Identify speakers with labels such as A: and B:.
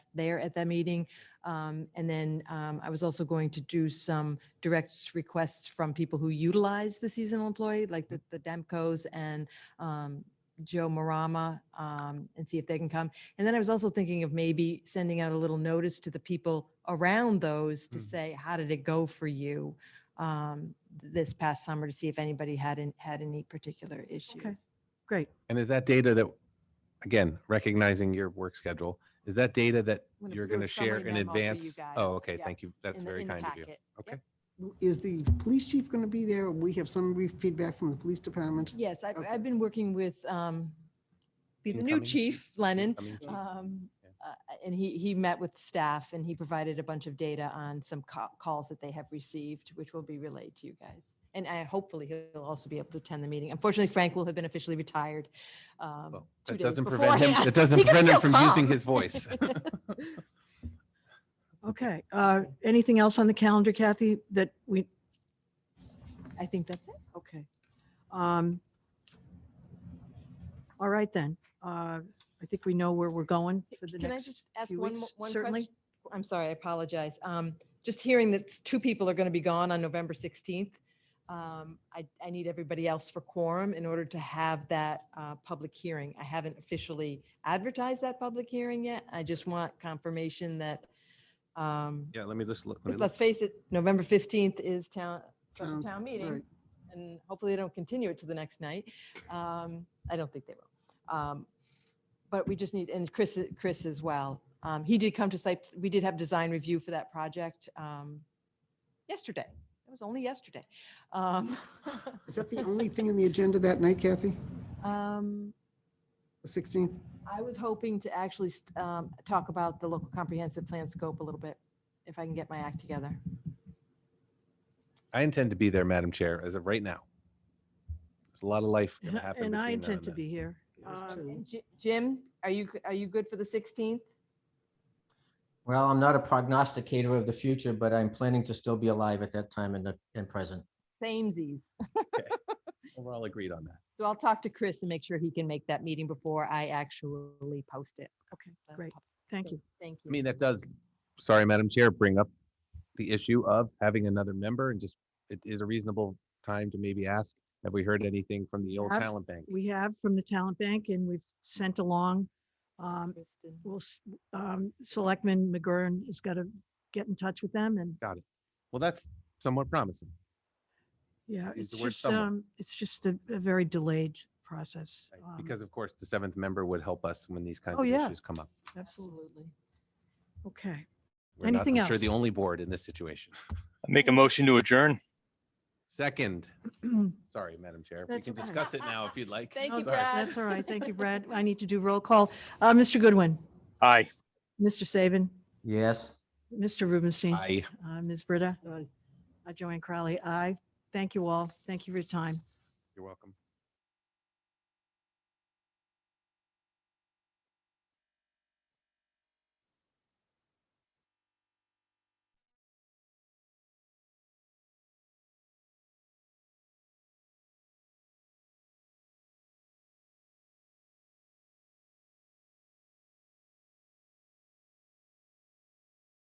A: there at that meeting. Um, And then um, I was also going to do some direct requests from people who utilize the seasonal employee, like the the Demcos and um, Joe Marama, um, and see if they can come. And then I was also thinking of maybe sending out a little notice to the people around those to
B: Mm.
A: say, how did it go for you um, this past summer to see if anybody had, an- had any particular issues?
C: Great.
B: And is that data that, again, recognizing your work schedule, is that data that
A: I'm gonna
B: you're
A: put a
B: going to share
A: summary
B: in
A: memo for you
B: advance?
A: guys.
B: Oh, okay,
A: Yeah.
B: thank you. That's
A: in the-
B: very
A: in the
B: kind of you.
A: packet. Yep.
B: Okay.
C: Is the police chief going to be there? We have some re- feedback from the police department.
A: Yes, I've,
C: Okay.
A: I've been working with, um, be the new
B: Incoming
A: chief, Lennon.
B: Incoming chief.
A: um,
B: Mm. Yeah.
A: uh, And he, he met with staff and he provided a bunch of data on some ca- calls that they have received, which will be relayed to you guys. And I, hopefully he'll also be able to attend the meeting. Unfortunately, Frank will have been officially retired. um,
B: Well,
A: two
B: That
A: days
B: doesn't prevent him,
A: beforehand.
B: it doesn't
A: He can
B: prevent him
A: still
B: from using
A: come.
B: his voice.
D: Okay, uh, anything else on the calendar, Kathy, that we,
A: I think that's it.
D: okay. Um, All right then, uh, I think we know where we're going for the
A: Can I
D: next
A: just ask
D: few
A: one, mo-
D: weeks.
A: one
D: Certainly.
A: question? I'm sorry, I apologize. Um, just hearing that s- two people are going to be gone on November 16th. Um, I, I need everybody else for quorum in order to have that, uh, public hearing. I haven't officially advertised that public hearing yet. I just want confirmation that, um,
B: Yeah, let me just, look- let me
A: because
B: look.
A: let's face it, November 15th is town, special
C: Town,
A: town
C: right.
A: meeting. And hopefully they don't continue it to the next night. Um, I don't think they will. Um, But we just need, and Chris, Chris as well. Um, He did come to site, we did have design review for that project um, yesterday. It was only yesterday. Um,
C: Is that the only thing in the agenda that night, Kathy?
A: um,
C: The 16th?
A: I was hoping to actually st- um, talk about the local comprehensive plan scope a little bit, if I can get my act together.
B: I intend to be there, Madam Chair, as of right now. There's a lot of life going to happen.
D: And I
B: between now
D: intend to
B: then.
D: be here.
C: There's
D: Um,
C: two.
A: And Ji- Jim, are you, g- are you good for the 16th?
E: Well, I'm not a prognosticator of the future, but I'm planning to still be alive at that time and, and present.
A: Samesies.
B: We're all agreed on that.
A: So I'll talk to Chris and make sure he can make that meeting before I actually post it.
D: Okay,
A: Uh,
D: great,
A: pub-
D: thank you.
A: Thank you.
B: I mean, that does, sorry, Madam Chair, bring up the issue of having another member and just, it is a reasonable time to maybe ask, have we heard anything from the old
D: Have-
B: talent bank?
D: We have from the talent bank and we've sent along, um,
A: Kristen.
D: we'll, s- um, Selectman McGurran has got to get in touch with them and
B: Well, that's somewhat promising.
D: Yeah,
B: use
D: it's
B: the word
D: just,
B: somewhat.
D: um, it's just a, a very delayed process.
B: right?
D: um,
B: Because of course, the seventh member would help us when these kinds
D: Oh,
B: of
D: yeah.
B: issues come up.
D: Absolutely.
A: Absolutely.
D: Okay.
B: We're not,
D: Anything
B: I'm Sure, the
D: else?
B: only board in this situation.
F: Make a motion to adjourn.
B: Second, sorry, Madam Chair, we
D: That's
B: can
D: okay.
B: discuss it now if you'd like.
A: Thank
D: No,
A: you,
B: Sorry.
A: Brad.
D: That's all right. Thank you, Brad. I need to do roll call. Uh, Mr. Goodwin,
F: Aye.
D: Mr. Saban,
E: Yes.
D: Mr. Rubenstein,
B: Aye.
D: uh, Ms. Britta,
C: Aye.
D: uh, Joanne Crowley, aye. Thank you all. Thank you for your time.
B: You're welcome.